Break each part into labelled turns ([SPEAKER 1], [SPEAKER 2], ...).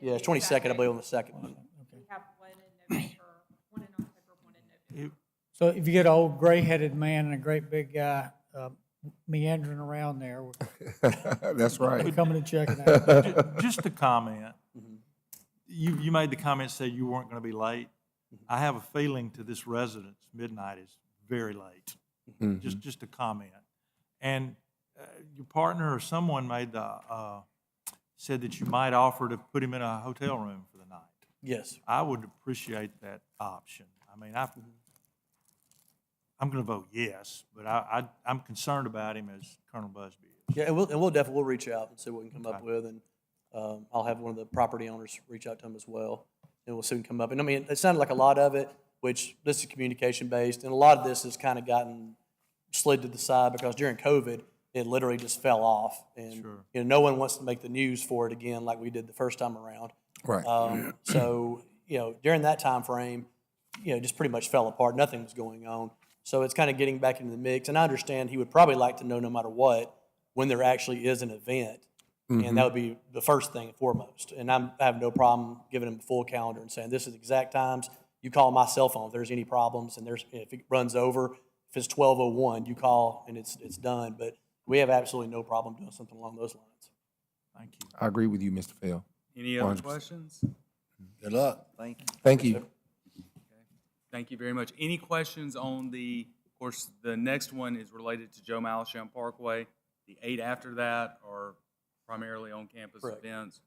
[SPEAKER 1] Yeah, it's twenty-second, I believe, on the second.
[SPEAKER 2] We have one in November, one in October, one in November.
[SPEAKER 3] So if you get an old gray-headed man and a great big guy uh, meandering around there, we're-
[SPEAKER 4] That's
[SPEAKER 3] we're
[SPEAKER 4] right.
[SPEAKER 3] coming to check it out.
[SPEAKER 5] Ju- Just a comment. You, you made the comment, said you weren't going to be late. I have a feeling to this residence, midnight is very Mm-hmm. late.
[SPEAKER 4] Mm-hmm.
[SPEAKER 5] Just, just a comment. And uh, your partner or someone made the, uh, said that you might offer to put him in a hotel room for the night.
[SPEAKER 1] Yes.
[SPEAKER 5] I would appreciate that option. I mean, I, I'm going to vote yes, but I, I, I'm concerned about him as Colonel Busby is.
[SPEAKER 1] Yeah, and we'll, and we'll definitely, we'll reach out and see what we can come up with, and um, I'll have one of the property owners reach out to him as well, and we'll see what can come up. And I mean, it sounded like a lot of it, which this is communication-based, and a lot of this has kind of gotten slid to the side because during COVID, it literally just fell off. And, you know, no one wants to make the news for it again like we did the first time around.
[SPEAKER 6] uh,
[SPEAKER 4] Right.
[SPEAKER 1] Um, so, you know, during that time frame, you know, just pretty much fell apart. Nothing was going on. So it's kind of getting back into the mix. And I understand he would probably like to know, no matter what, when there actually is an event. And that would be the first thing and foremost. And I'm, I have no problem giving him a full calendar and saying, this is the exact times. You call my cell phone if there's any problems and there's, if it runs over, if it's 1201, you call and it's, it's done. But we have absolutely no problem doing something along those lines.
[SPEAKER 5] Thank you.
[SPEAKER 4] I agree with you, Mr. Fail.
[SPEAKER 7] Any other
[SPEAKER 4] 100%.
[SPEAKER 7] questions?
[SPEAKER 6] Good luck.
[SPEAKER 7] Thank you.
[SPEAKER 4] Thank you.
[SPEAKER 7] Thank you very much. Any questions on the, of course, the next one is related to Joe Malisham Parkway. The eight after that are primarily on-campus
[SPEAKER 1] Correct.
[SPEAKER 7] events.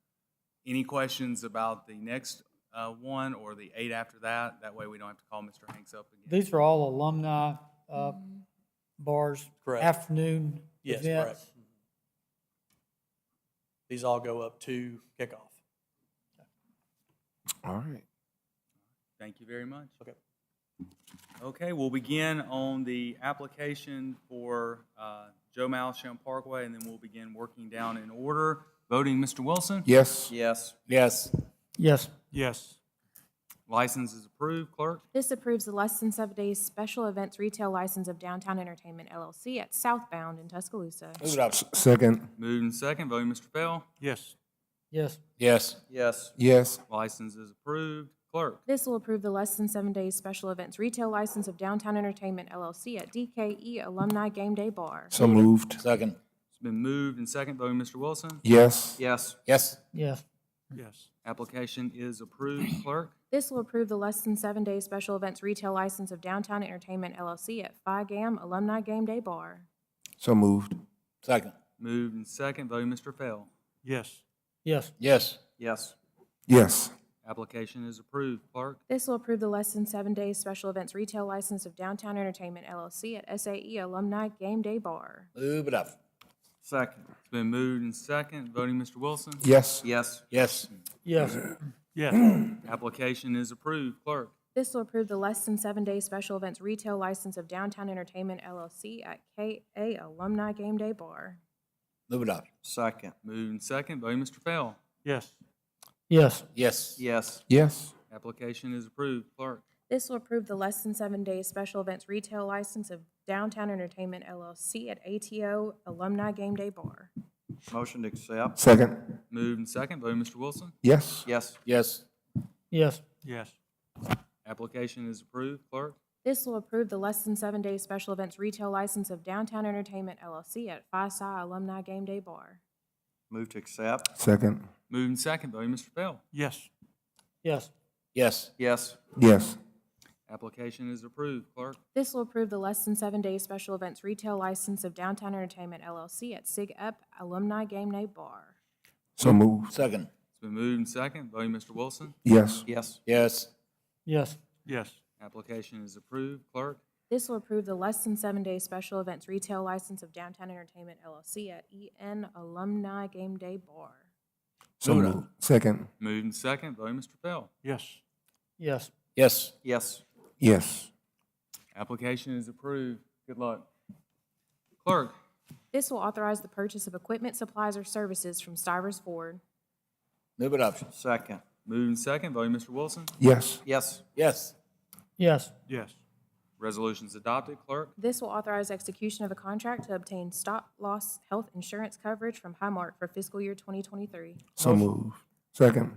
[SPEAKER 7] Any questions about the next uh, one or the eight after that? That way we don't have to call Mr. Hanks up again.
[SPEAKER 3] These are all alumni uh, bars,
[SPEAKER 1] Correct.
[SPEAKER 3] afternoon
[SPEAKER 1] Yes,
[SPEAKER 3] events.
[SPEAKER 1] correct. Mm-hmm. These all go up to kickoff.
[SPEAKER 4] All right.
[SPEAKER 7] Thank you very much.
[SPEAKER 1] Okay.
[SPEAKER 7] Okay, we'll begin on the application for uh, Joe Malisham Parkway, and then we'll begin working down in order. Voting, Mr. Wilson?
[SPEAKER 4] Yes.
[SPEAKER 6] Yes.
[SPEAKER 4] Yes.
[SPEAKER 3] Yes,
[SPEAKER 5] Yes.
[SPEAKER 7] License is approved. Clerk?
[SPEAKER 8] This approves the less than seven days special events retail license of Downtown Entertainment LLC at Southbound in Tuscaloosa.
[SPEAKER 6] Move it up.
[SPEAKER 4] Second.
[SPEAKER 7] Moved and second, voting Mr. Fail.
[SPEAKER 5] Yes.
[SPEAKER 3] yes,
[SPEAKER 4] Yes.
[SPEAKER 6] Yes.
[SPEAKER 4] Yes.
[SPEAKER 7] License is approved. Clerk,
[SPEAKER 8] This will approve the less than seven days special events retail license of Downtown Entertainment LLC at DKE Alumni Game Day Bar.
[SPEAKER 4] So moved.
[SPEAKER 6] Second.
[SPEAKER 7] it's been moved and second, voting Mr. Wilson.
[SPEAKER 4] Yes.
[SPEAKER 6] Yes. Yes.
[SPEAKER 3] yes,
[SPEAKER 5] Yes.
[SPEAKER 7] Application is approved. Clerk,
[SPEAKER 8] This will approve the less than seven days special events retail license of Downtown Entertainment LLC at Phi Gam Alumni Game Day Bar.
[SPEAKER 4] So moved.
[SPEAKER 6] Second.
[SPEAKER 7] moved and second, voting Mr. Fail.
[SPEAKER 5] Yes.
[SPEAKER 3] yes,
[SPEAKER 6] Yes. Yes.
[SPEAKER 4] Yes.
[SPEAKER 7] Application is approved. Clerk,
[SPEAKER 8] This will approve the less than seven days special events retail license of Downtown Entertainment LLC at SAE Alumni Game Day Bar.
[SPEAKER 6] Move it up.
[SPEAKER 7] second. It's been moved and second, voting Mr. Wilson.
[SPEAKER 4] Yes.
[SPEAKER 6] Yes. Yes.
[SPEAKER 3] yes,
[SPEAKER 5] Yes.
[SPEAKER 7] Application is approved. Clerk,
[SPEAKER 8] This will approve the less than seven day special events retail license of Downtown Entertainment LLC at KA Alumni Game Day Bar.
[SPEAKER 6] Move it up. Second.
[SPEAKER 7] moved and second, voting Mr. Fail.
[SPEAKER 5] Yes.
[SPEAKER 3] yes,
[SPEAKER 6] Yes. Yes.
[SPEAKER 4] Yes.
[SPEAKER 7] Application is approved. Clerk,
[SPEAKER 8] This will approve the less than seven day special events retail license of Downtown Entertainment LLC at ATO Alumni Game Day Bar.
[SPEAKER 6] Motion to accept.
[SPEAKER 4] Second.
[SPEAKER 7] moved and second, voting Mr. Wilson.
[SPEAKER 4] Yes.
[SPEAKER 6] Yes. Yes.
[SPEAKER 3] yes,
[SPEAKER 5] Yes.
[SPEAKER 7] Application is approved. Clerk,
[SPEAKER 8] This will approve the less than seven day special events retail license of Downtown Entertainment LLC at Phi Psi Alumni Game Day Bar.
[SPEAKER 6] Move to accept.
[SPEAKER 4] Second.
[SPEAKER 7] moved and second, voting Mr. Fail.
[SPEAKER 5] Yes.
[SPEAKER 3] yes,
[SPEAKER 6] Yes. Yes.
[SPEAKER 4] Yes.
[SPEAKER 7] Application is approved. Clerk,
[SPEAKER 8] This will approve the less than seven day special events retail license of Downtown Entertainment LLC at Sig Up Alumni Game Day Bar.
[SPEAKER 4] So moved.
[SPEAKER 6] Second.
[SPEAKER 7] It's been moved and second, voting Mr. Wilson.
[SPEAKER 4] Yes.
[SPEAKER 6] Yes. Yes.
[SPEAKER 3] yes,
[SPEAKER 5] Yes.
[SPEAKER 7] Application is approved. Clerk,
[SPEAKER 8] This will approve the less than seven day special events retail license of Downtown Entertainment LLC at EN Alumni Game Day Bar.
[SPEAKER 4] So moved. Second.
[SPEAKER 7] moved and second, voting Mr. Fail.
[SPEAKER 5] Yes.
[SPEAKER 3] yes,
[SPEAKER 6] Yes. Yes.
[SPEAKER 4] Yes.
[SPEAKER 7] Application is approved. Good luck. Clerk,
[SPEAKER 8] This will authorize the purchase of equipment, supplies, or services from Stivers Ford.
[SPEAKER 6] Move it up. Second.
[SPEAKER 7] moved and second, voting Mr. Wilson.
[SPEAKER 4] Yes.
[SPEAKER 6] Yes. Yes.
[SPEAKER 3] yes,
[SPEAKER 5] Yes.
[SPEAKER 7] Resolution's adopted. Clerk,
[SPEAKER 8] This will authorize execution of a contract to obtain stop-loss health insurance coverage from Highmark for fiscal year 2023.
[SPEAKER 4] So moved. Second.